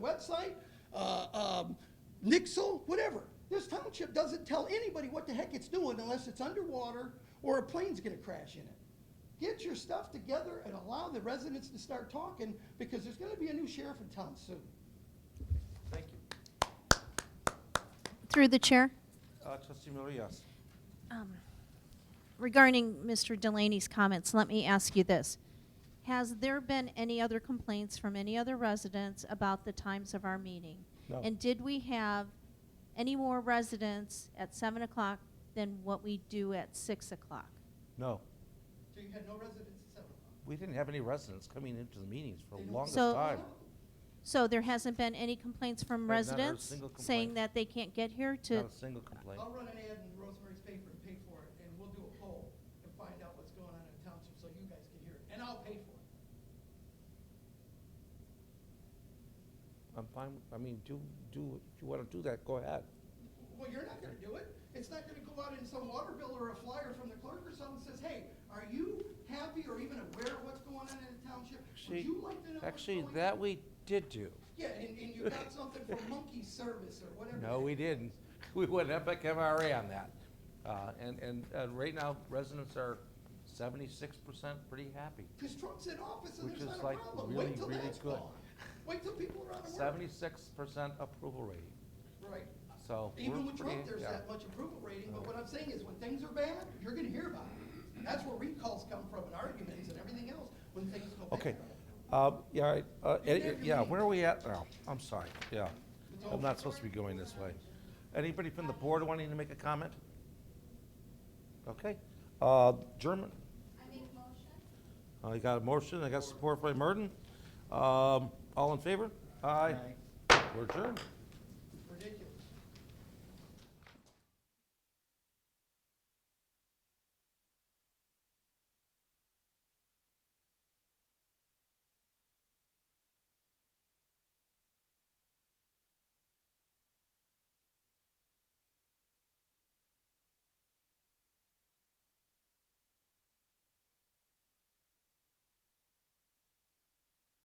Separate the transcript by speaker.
Speaker 1: website, uh, um, Nixle, whatever. This township doesn't tell anybody what the heck it's doing unless it's underwater or a plane's gonna crash in it. Get your stuff together and allow the residents to start talking, because there's gonna be a new sheriff in town soon.
Speaker 2: Thank you.
Speaker 3: Through the chair, Um,
Speaker 2: Uh, Trustee Marias.
Speaker 3: regarding Mr. Delaney's comments, let me ask you this. Has there been any other complaints from any other residents about the times of our meeting?
Speaker 2: No.
Speaker 3: And did we have any more residents at seven o'clock than what we do at six o'clock?
Speaker 2: No,
Speaker 1: So you had no residents at seven o'clock?
Speaker 2: we didn't have any residents coming into the meetings for
Speaker 1: They
Speaker 2: the
Speaker 1: don't-
Speaker 2: longest
Speaker 3: So-
Speaker 2: time.
Speaker 3: So there hasn't been any complaints from
Speaker 2: Right, not a
Speaker 3: residents
Speaker 2: single complaint.
Speaker 3: saying that they can't get here to,
Speaker 2: Not a single complaint.
Speaker 1: I'll run an ad in Rosemary's paper and pay for it, and we'll do a poll and find out what's going on in the township, so you guys can hear it, and I'll pay for it.
Speaker 2: I'm fine, I mean, do, do, if you want to do that, go ahead.
Speaker 1: Well, you're not gonna do it. It's not gonna go out in some water bill or a flyer from the clerk or someone says, hey, are you happy or even aware of what's going on in the township? Would
Speaker 2: Actually,
Speaker 1: you like to know what's
Speaker 2: actually,
Speaker 1: going on?"
Speaker 2: that we did do.
Speaker 1: Yeah, and, and you got something for monkey service or whatever.
Speaker 2: No, we didn't. We went epic MRA on that. Uh, And, and, and right now, residents are seventy-six percent pretty happy.
Speaker 1: Because Trump's in office and
Speaker 2: Which
Speaker 1: there's
Speaker 2: is,
Speaker 1: not a
Speaker 2: like,
Speaker 1: problem.
Speaker 2: really,
Speaker 1: Wait till
Speaker 2: really
Speaker 1: that's
Speaker 2: good.
Speaker 1: gone. Wait till people are out of work.
Speaker 2: Seventy-six percent approval rating,
Speaker 1: Right.
Speaker 2: so. we're
Speaker 1: Even with Trump,
Speaker 2: pretty-
Speaker 1: there's
Speaker 2: yeah.
Speaker 1: that much approval rating, but what I'm saying is when things are bad, you're gonna hear about it. That's where recalls come from and arguments and everything else, when things go bad.
Speaker 2: Okay, uh, yeah, I- uh,
Speaker 1: Is there
Speaker 2: any- yeah,
Speaker 1: any-
Speaker 2: where are we at now? I'm sorry, yeah, I'm not supposed to be going this way. Anybody from the board wanting to make a comment? Okay, uh, German? I make motion. I got a motion, I got support by Merton. Um, all in favor? Aye. We're adjourned.